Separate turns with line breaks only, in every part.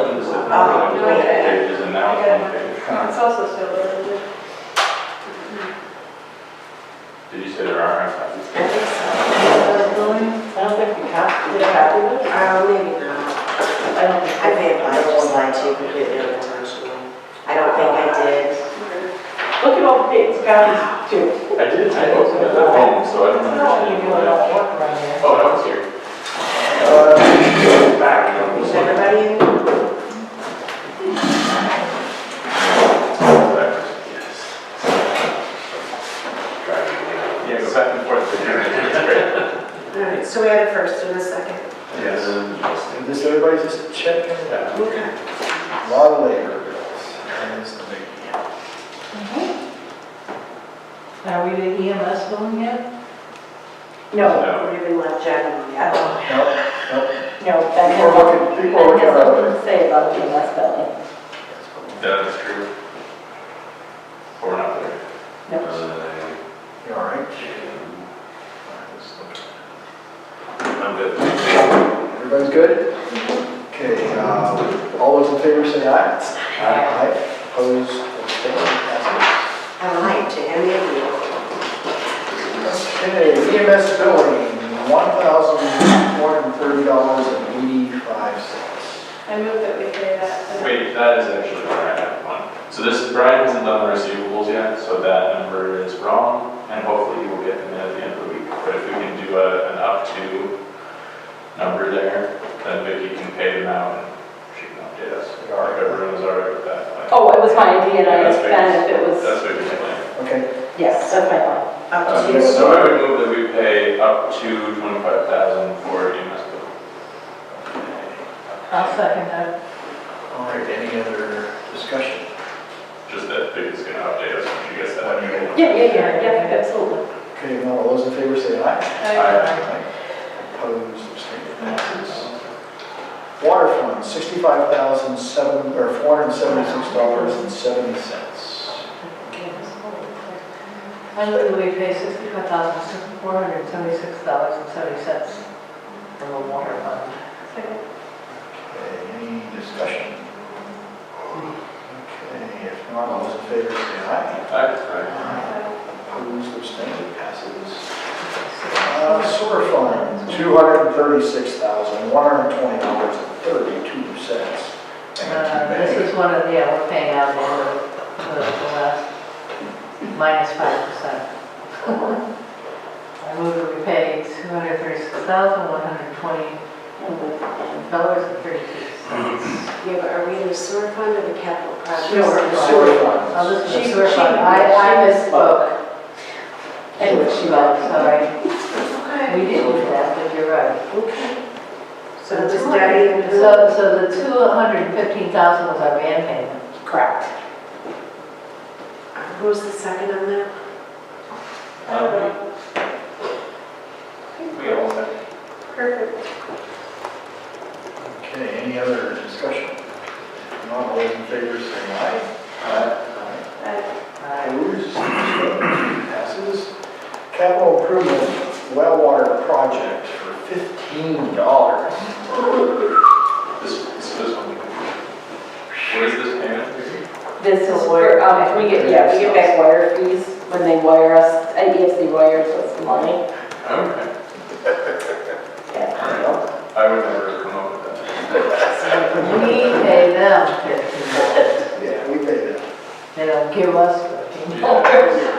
Oh,
number
look
of
at that.
pages and now it's one page.
It's also still there, isn't it?
Did you say there are copies?
I don't think we have to. Yeah.
Uh, maybe not.
I don't think.
I may have lied, just lied to you completely unintentionally. I don't think I did.
Look at all the dates, guys, too.
I did, I opened it at home, so I don't
No, you do a
know.
lot of work around here.
Oh, that was here. Back, you know,
Was
this one.
everybody in?
Yes. Yeah, go back and forth.
All right, so we had a first and a second.
Yes.
And just everybody's just checking it out.
Okay.
A lot of labor bills. And it's the big deal.
Now, we did EMS billing yet?
No.
No, we even left Jen on yet.
Nope, nope.
No, that
People are looking, people are looking
That's
at
what
other.
we Say about EMS billing.
That is true. Or not there. Uh,
You all right?
I'm good.
Everybody's good? Okay, um, all those in favor say aye. Aye. Opposed, abstained, passes.
I lied to any of you.
Okay, EMS billing, one thousand four hundred and thirty dollars and eighty-five cents.
I move that we pay that.
Wait, that is actually where I have one. So this, Brian hasn't done the receivables yet, so that number is wrong, and hopefully he will get them in at the end of the week. But if we can do a, an up to number there, then Vicky can pay them out and she can update us. If everyone is all right with that.
Oh, it was my idea, and I
That's
asked Ben if it
Vicky's-
was,
That's Vicky's plan.
Okay,
yes, that's my thought.
Uh,
Up to
Um,
you.
So I would move that we pay up to twenty-five thousand for EMS bill.
I'll second that.
all right, any other discussion?
Just that Vicky's gonna update us when she gets that.
Yeah, yeah, yeah, yeah, absolutely.
Okay, now all those in favor say aye.
I-
Opposed, abstained, passes. Water fund, sixty-five thousand seven, or four hundred and seventy-six dollars and seventy cents.
I move that we pay sixty-five thousand, four hundred and seventy-six dollars and seventy cents from the water fund.
Okay, any discussion? Okay, if not, all those in favor say aye.
I-
uh,
Opposed, abstained, passes. Uh, Sewer fund, two hundred and thirty-six thousand, one hundred and twenty dollars and thirty-two cents.
Uh, This is one of, yeah, we're paying out more of the the last, minus five percent. I move that we pay two hundred thirty-six thousand, one hundred twenty dollars and thirty-two cents.
Yeah, but are we in the sewer fund or the capital projects?
Sure.
Sewer fund.
Oh, this
That's-
is your fund, I, I misspoke. Anyway, she was, sorry,
Okay.
we didn't do that, but you're right.
Okay. So just daddy and the
So, so the two hundred and fifteen thousand was our van payment? Correct.
Who's Uh, the second on that?
uh,
Um, We all said.
Perfect.
Okay, any other discussion? If Not all those in favor say aye. Aye.
Uh,
Opposed, passes. Capital improvement well water project for fifteen dollars.
This, this this one. What is this payment?
This is where, um, we get, yeah, we get back wire fees when they wire us, uh, if they wire us money.
Okay.
Yeah.
I would never come up with that.
We pay them fifteen dollars,
Yeah, we paid it.
they don't give us fifteen
Oh.
dollars.
Yeah.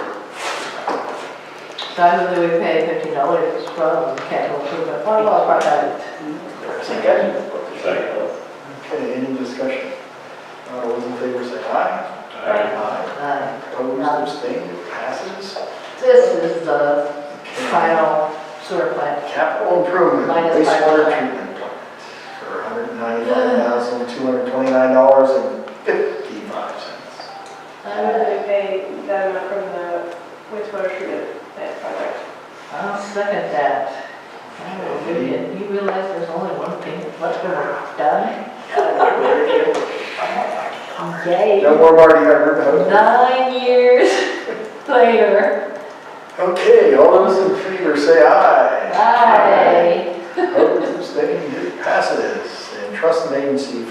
So I believe we pay fifteen dollars from capital improvement fund, well, part of it.
Second.
Second.
Okay, any discussion? Not all those in favor say aye.
Alright.
Uh,
Opposed, abstained, it passes.
This is the final sewer plant.
Capital improvement,
Minus five
wastewater
hundred.
treatment plant for
I
$195,229.55.
move that we pay that amount from the wastewater treatment plant project.
I'll second that. Oh, You didn't- you realize there's only one thing left to work done?
Yay.
No more Marty, I heard that.
Nine years later,
Okay, all those in favor say aye.
I
Opposed, abstained, it passes. And trust and agency